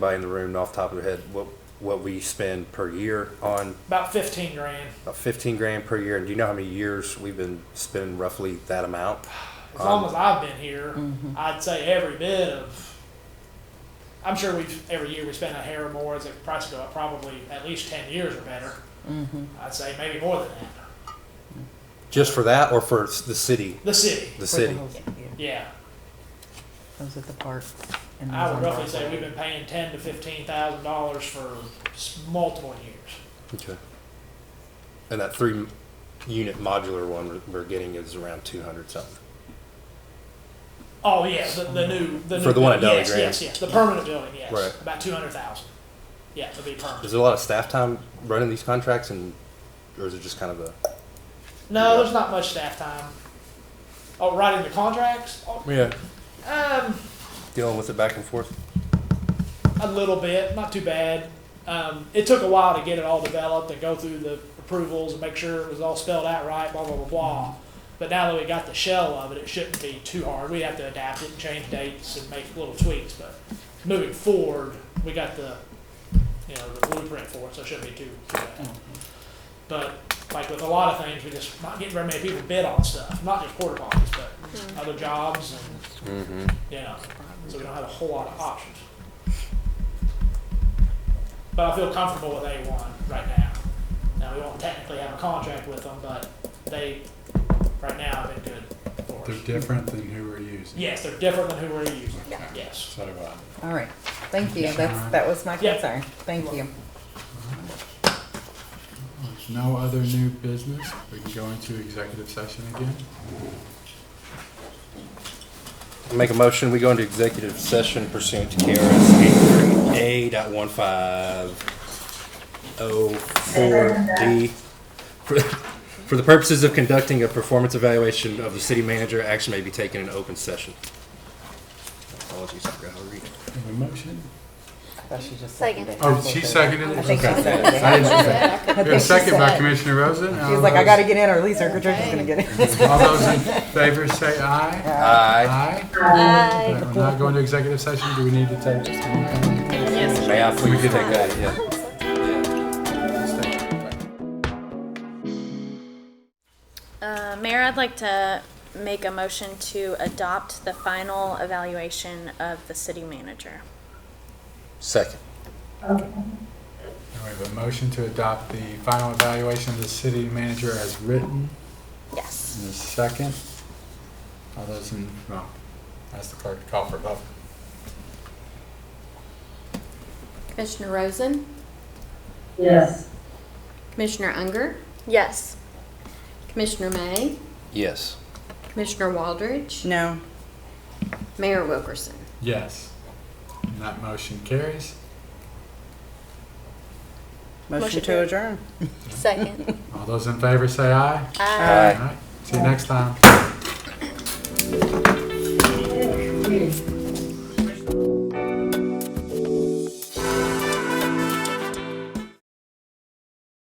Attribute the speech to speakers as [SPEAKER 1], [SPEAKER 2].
[SPEAKER 1] anybody in the room off the top of their head what what we spend per year on
[SPEAKER 2] About fifteen grand.
[SPEAKER 1] about 15 grand per year and do you know how many years we've been spending roughly that amount
[SPEAKER 2] As long as I've been here, I'd say every bit of. I'm sure we've every year we spend a hair more as the price go up. Probably at least ten years or better. I'd say maybe more than that.
[SPEAKER 1] just for that or for s- the city
[SPEAKER 2] The city,
[SPEAKER 1] the city
[SPEAKER 2] yeah.
[SPEAKER 3] Those at the park. and
[SPEAKER 2] I
[SPEAKER 3] those
[SPEAKER 2] would
[SPEAKER 3] on
[SPEAKER 2] roughly
[SPEAKER 3] Broadway.
[SPEAKER 2] say we've been paying ten to fifteen thousand dollars for s- multiple years.
[SPEAKER 1] okay and that three m- unit modular one we're- we're getting is around 200 something
[SPEAKER 2] Oh yeah, the, the new the
[SPEAKER 1] For
[SPEAKER 2] new,
[SPEAKER 1] the one at Dolly
[SPEAKER 2] yes,
[SPEAKER 1] Graham.
[SPEAKER 2] yes, yes, the permanent building, yes,
[SPEAKER 1] Right.
[SPEAKER 2] about two hundred thousand. Yeah, it'll be permanent.
[SPEAKER 1] is there a lot of staff time running these contracts and or is it just kind of a
[SPEAKER 2] No, there's not much staff time. Oh, writing the contracts? Oh,
[SPEAKER 1] yeah
[SPEAKER 2] Um,
[SPEAKER 1] dealing with it back and forth
[SPEAKER 2] a little bit, not too bad. Um, it took a while to get it all developed and go through the approvals and make sure it was all spelled out right, blah, blah, blah, blah. But now that we got the shell of it, it shouldn't be too hard. We have to adapt it and change dates and make little tweaks, but moving forward, we got the, you know, the blueprint for it, so it shouldn't be too, too bad. But like with a lot of things, we just not getting very many people bid on stuff, not just porta potties, but other jobs and,
[SPEAKER 1] mm-hmm.
[SPEAKER 2] you know, so we don't have a whole lot of options. But I feel comfortable with A1 right now. Now, we won't technically have a contract with them, but they, right now, have been good for
[SPEAKER 4] They're
[SPEAKER 2] us.
[SPEAKER 4] different than who we're using.
[SPEAKER 2] Yes, they're different than who we're using,
[SPEAKER 4] Okay.
[SPEAKER 2] yes.
[SPEAKER 4] So uh, do I.
[SPEAKER 3] All right, thank you,
[SPEAKER 4] Sure.
[SPEAKER 3] that's, that was my
[SPEAKER 2] Yeah.
[SPEAKER 3] concern, thank you.
[SPEAKER 4] There's no other new business. We can go into executive session again.
[SPEAKER 1] I Make a motion, we go into executive session pursuant to KRS eight dot one five oh four D. For for the purposes of conducting a performance evaluation of the city manager, action may be taken in open session. Apologies, I forgot how to read it.
[SPEAKER 4] Have a motion?
[SPEAKER 3] I thought she just
[SPEAKER 5] Second.
[SPEAKER 3] seconded.
[SPEAKER 4] Oh, she seconded it?
[SPEAKER 3] I think she
[SPEAKER 4] Okay.
[SPEAKER 3] seconded it.
[SPEAKER 4] I didn't see
[SPEAKER 3] I
[SPEAKER 4] that. We have a
[SPEAKER 3] think she
[SPEAKER 4] second by
[SPEAKER 3] said-
[SPEAKER 4] Commissioner Rosen.
[SPEAKER 3] She was like, I gotta get in or at least her Patricia's gonna get in.
[SPEAKER 4] All those in favor say aye.
[SPEAKER 1] Aye.
[SPEAKER 4] Aye.
[SPEAKER 5] Bye.
[SPEAKER 4] All right, We're not going to executive session. Do we need to take?
[SPEAKER 1] May I please take that, yeah.
[SPEAKER 6] Uh, Mayor, I'd like to make a motion to adopt the final evaluation of the city manager.
[SPEAKER 1] Second.
[SPEAKER 4] We have a motion to adopt the final evaluation of the city manager as written.
[SPEAKER 6] Yes.
[SPEAKER 4] And a second. All those in, well, ask the clerk to call for a vote.
[SPEAKER 5] Commissioner Rosen?
[SPEAKER 7] Yes.
[SPEAKER 5] Commissioner Unger?
[SPEAKER 6] Yes.
[SPEAKER 5] Commissioner May?
[SPEAKER 1] Yes.
[SPEAKER 5] Commissioner Waldridge?
[SPEAKER 3] No,
[SPEAKER 5] Mayor Wilkerson?
[SPEAKER 4] Yes. And that motion carries.
[SPEAKER 3] motion
[SPEAKER 6] Motion
[SPEAKER 3] to
[SPEAKER 6] to-
[SPEAKER 3] adjourn.
[SPEAKER 6] Second.
[SPEAKER 4] All those in favor say aye.
[SPEAKER 1] Aye.
[SPEAKER 4] Aye. See you next time.
[SPEAKER 7] Yes.